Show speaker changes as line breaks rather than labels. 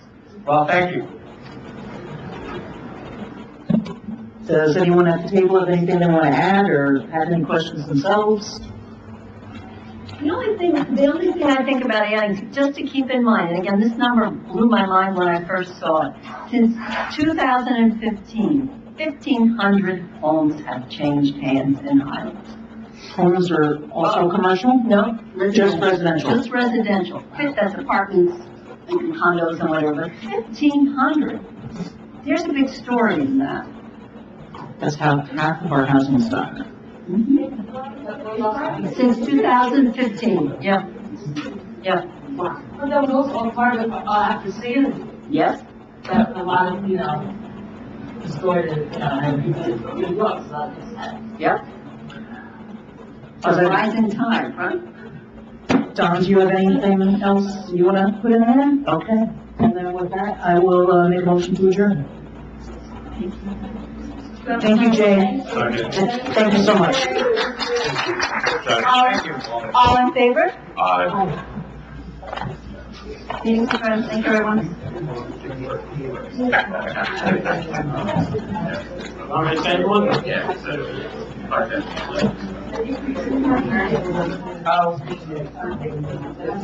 Well, thank you.
Does anyone at the table have anything they want to add or have any questions themselves?
The only thing, the only thing I think about adding, just to keep in mind, and again, this number blew my mind when I first saw it. Since 2015, 1,500 homes have changed hands in Highlands.
Homes are also commercial?
No?
Just residential.
Just residential. Fit- That's apartments and condos and whatever. 1,500. There's a big story in that.
That's how half of our housing stock.
Since 2015, yeah. Yeah.
But that was also a part of, uh, after seeing
Yes?
that a lot of, you know, distorted, you know, and people, uh, it was, like I said.
Yeah.
Does
A
it-
rising tide, right?
Don, do you have anything else you want to put in there? Okay. And then with that, I will, uh, make a motion to adjourn. Thank you, Jay. Thank you so much.
Thank you. Uh,
All in favor?
Aye.
Meeting's adjourned. Thank you, everyone.
All right, anyone? Yeah. Okay.